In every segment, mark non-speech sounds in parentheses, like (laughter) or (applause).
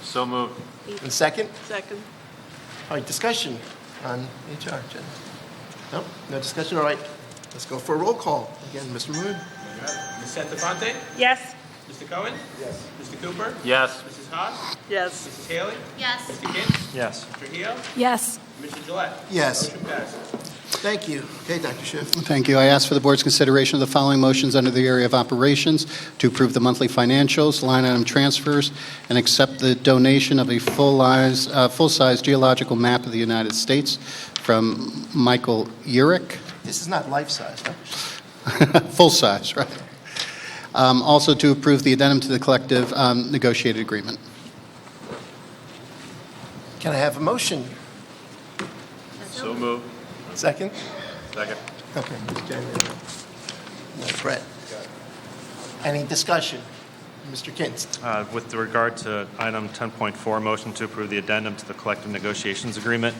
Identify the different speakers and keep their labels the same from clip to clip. Speaker 1: So moved.
Speaker 2: And second?
Speaker 3: Second.
Speaker 2: All right, discussion on HR, Jen? No, no discussion, all right. Let's go for a roll call. Again, Mr. Maroon?
Speaker 4: Ms. Santafonte?
Speaker 3: Yes.
Speaker 4: Mr. Cohen? Yes. Mr. Cooper?
Speaker 1: Yes.
Speaker 4: Mrs. Haas?
Speaker 3: Yes.
Speaker 4: Mrs. Haley?
Speaker 5: Yes.
Speaker 4: Mr. Kinn?
Speaker 1: Yes.
Speaker 4: Mr. Hio?
Speaker 6: Yes.
Speaker 4: Mr. Gillette?
Speaker 2: Yes.
Speaker 4: Motion passes.
Speaker 2: Thank you. Okay, Dr. Schiff.
Speaker 7: Thank you. I ask for the board's consideration of the following motions under the area of operations to approve the monthly financials, line item transfers, and accept the donation of a full-size uh, full-size geological map of the United States from Michael (laughs) Urick.
Speaker 2: This is not life-size, huh?
Speaker 7: Full-size, right. Um, Also to approve the addendum to the collective um, negotiated agreement.
Speaker 2: Can I have a motion?
Speaker 1: So moved.
Speaker 2: Second?
Speaker 1: Second.
Speaker 2: Okay. Jen, no, Brett? Any discussion? Mr. Kinst?
Speaker 8: Uh, With regard to item 10.4, motion to approve the addendum to the collective negotiations agreement,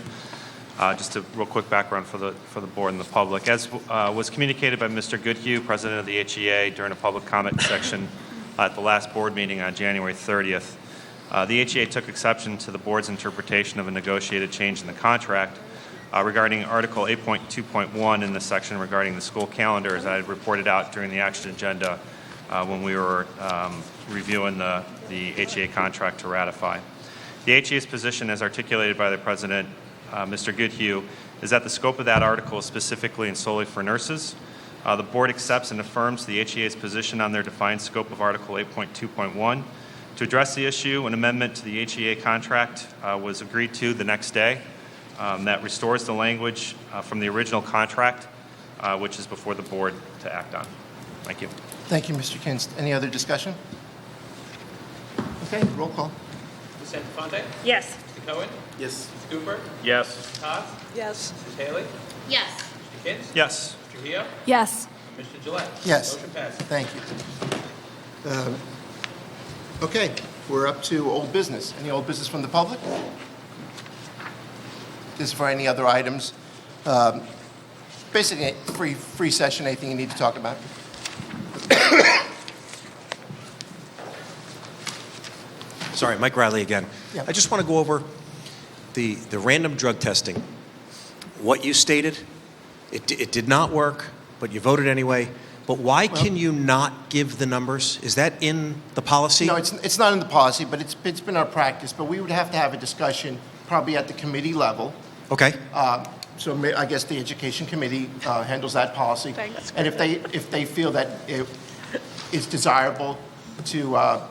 Speaker 8: uh, just a real quick background for the, for the board and the public. As uh, was communicated by Mr. Goodhue, President of the HEA, during a public comment section at the last board meeting on January 30th, uh, the HEA took exception to the board's interpretation of a negotiated change in the contract uh, regarding Article 8.2.1 in the section regarding the school calendar, as I had reported out during the action agenda uh, when we were um, reviewing the, the HEA contract to ratify. The HEA's position, as articulated by the President, uh, Mr. Goodhue, is that the scope of that article is specifically and solely for nurses. Uh, The Board accepts and affirms the HEA's position on their defined scope of Article 8.2.1. To address the issue, an amendment to the HEA contract uh, was agreed to the next day um, that restores the language uh, from the original contract, uh, which is before the Board to act on. Thank you.
Speaker 2: Thank you, Mr. Kinst. Any other discussion? Okay, roll call.
Speaker 4: Ms. Santafonte?
Speaker 3: Yes.
Speaker 4: Mr. Cohen?
Speaker 2: Yes.
Speaker 4: Mr. Cooper?
Speaker 1: Yes.
Speaker 4: Mrs. Haas?
Speaker 3: Yes.
Speaker 4: Mrs. Haley?
Speaker 5: Yes.
Speaker 4: Mr. Kinn?
Speaker 8: Yes.
Speaker 4: Mr. Hio?
Speaker 6: Yes.
Speaker 4: Mr. Gillette?
Speaker 2: Yes.
Speaker 4: Motion passes.
Speaker 2: Thank you. Um, Okay, we're up to old business. Any old business from the public? This is for any other items. Um, Basically, free, free session, anything you need to talk about?
Speaker 9: Sorry, Mike Riley again.
Speaker 2: Yeah.
Speaker 9: I just want to go over the, the random drug testing. What you stated, it, di- it did not work, but you voted anyway. But why can you not give the numbers? Is that in the policy?
Speaker 2: No, it's, it's not in the policy, but it's, it's been our practice, but we would have to have a discussion probably at the committee level.
Speaker 9: Okay,
Speaker 2: Uh, So ma- I guess the Education Committee uh, handles that policy.
Speaker 3: Thanks.
Speaker 2: And if they, if they feel that it is desirable to, uh,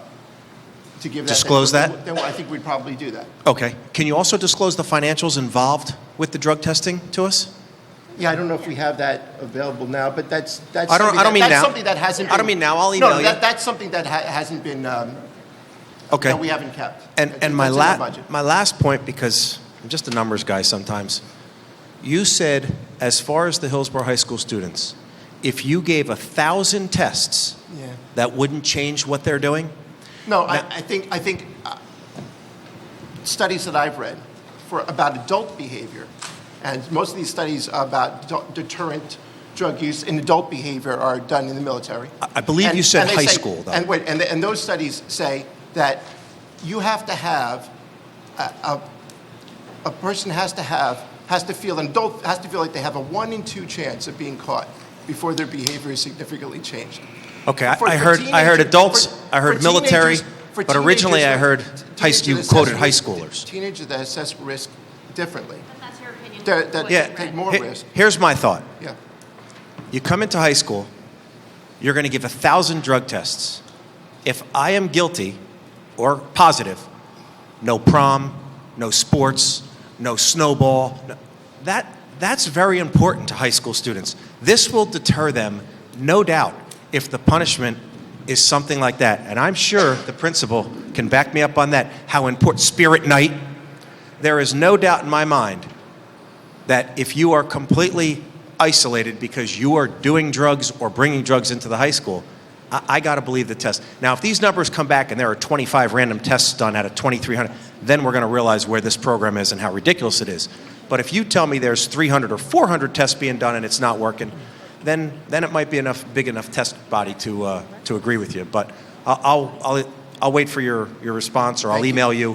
Speaker 2: to give that. then-
Speaker 9: Disclose that?
Speaker 2: Then I think we'd probably do that.
Speaker 9: okay. Can you also disclose the financials involved with the drug testing to us?
Speaker 2: Yeah, I don't know if we have that available now, but that's, that's.
Speaker 9: I don't-
Speaker 2: something
Speaker 9: I don't
Speaker 2: that-
Speaker 9: mean
Speaker 2: That's
Speaker 9: now.
Speaker 2: something that hasn't.
Speaker 9: I don't
Speaker 2: been-
Speaker 9: mean now. I'll
Speaker 2: No,
Speaker 9: email
Speaker 2: no,
Speaker 9: you.
Speaker 2: that- that's something that ha- hasn't been, um,
Speaker 9: Okay.
Speaker 2: that we haven't kept.
Speaker 9: And,
Speaker 2: That's-
Speaker 9: and my,
Speaker 2: that's in
Speaker 9: la-
Speaker 2: the budget.
Speaker 9: my last point, because I'm just a numbers guy sometimes, you said, as far as the Hillsborough High School students, if you gave a thousand tests,
Speaker 2: Yeah.
Speaker 9: that wouldn't change what they're doing?
Speaker 2: No, I,
Speaker 9: Now-
Speaker 2: I think, I think uh, studies that I've read for, about adult behavior, and most of these studies about do- deterrent drug use in adult behavior are done in the military.
Speaker 9: I- I believe you said
Speaker 2: they
Speaker 9: high
Speaker 2: say-
Speaker 9: school, though.
Speaker 2: And, wait, and, and those studies say that you have to have, a, a, a person has to have, has to feel, an adult has to feel like they have a one in two chance of being caught before their behavior is significantly changed.
Speaker 9: Okay, I,
Speaker 2: For-
Speaker 9: I
Speaker 2: for
Speaker 9: heard I heard
Speaker 2: teenager-
Speaker 9: adults,
Speaker 2: for-
Speaker 9: I heard
Speaker 2: for
Speaker 9: military,
Speaker 2: teenagers- for
Speaker 9: but originally I
Speaker 2: teenagers,
Speaker 9: heard high,
Speaker 2: teenagers
Speaker 9: you
Speaker 2: assess
Speaker 9: quoted high
Speaker 2: risk-
Speaker 9: schoolers.
Speaker 2: Teenagers that assess risk differently.
Speaker 5: That's your opinion.
Speaker 2: They're- that-
Speaker 5: What you
Speaker 9: Yeah,
Speaker 5: read.
Speaker 2: take more
Speaker 9: he-
Speaker 2: risk.
Speaker 9: here's my thought.
Speaker 2: Yeah.
Speaker 9: You come into high school, you're going to give a thousand drug tests. If I am guilty or positive, no prom, no sports, no snowball. no- that, that's very important to high school students. This will deter them, no doubt, if the punishment is something like that. And I'm sure the principal can back me up on that. How important Spirit Night. There is no doubt in my mind that if you are completely isolated because you are doing drugs or bringing drugs into the high school, I, I got to believe the test. Now, if these numbers come back and there are 25 random tests done out of 2,300, then we're going to realize where this program is and how ridiculous it is. But if you tell me there's 300 or 400 tests being done and it's not working, then, then it might be enough big enough test body to, uh, to agree with you. But I'll, I'll, I'll, I'll wait for your, your response or I'll
Speaker 2: Thank you.
Speaker 9: email you.